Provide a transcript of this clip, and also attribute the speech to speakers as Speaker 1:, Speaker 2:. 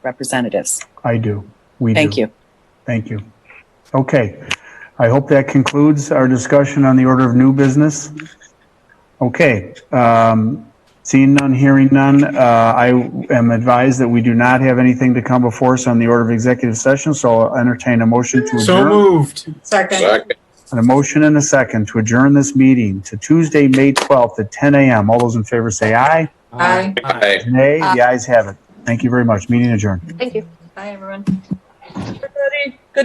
Speaker 1: representatives.
Speaker 2: I do. We do.
Speaker 1: Thank you.
Speaker 2: Thank you. Okay. I hope that concludes our discussion on the order of new business. Okay. um, Seeing none, hearing none, uh, I am advised that we do not have anything to come before us on the order of executive session, so I'll entertain a motion to
Speaker 3: So
Speaker 2: adjourn.
Speaker 3: moved.
Speaker 4: Second.
Speaker 5: Second.
Speaker 2: And a motion and a second to adjourn this meeting to Tuesday, May 12th at 10 a.m. All those in favor say aye.
Speaker 4: Aye.
Speaker 5: Aye.
Speaker 2: Nay, the ayes have it. Thank you very much. Meeting adjourned.
Speaker 4: Thank you. Bye, everyone. Everybody.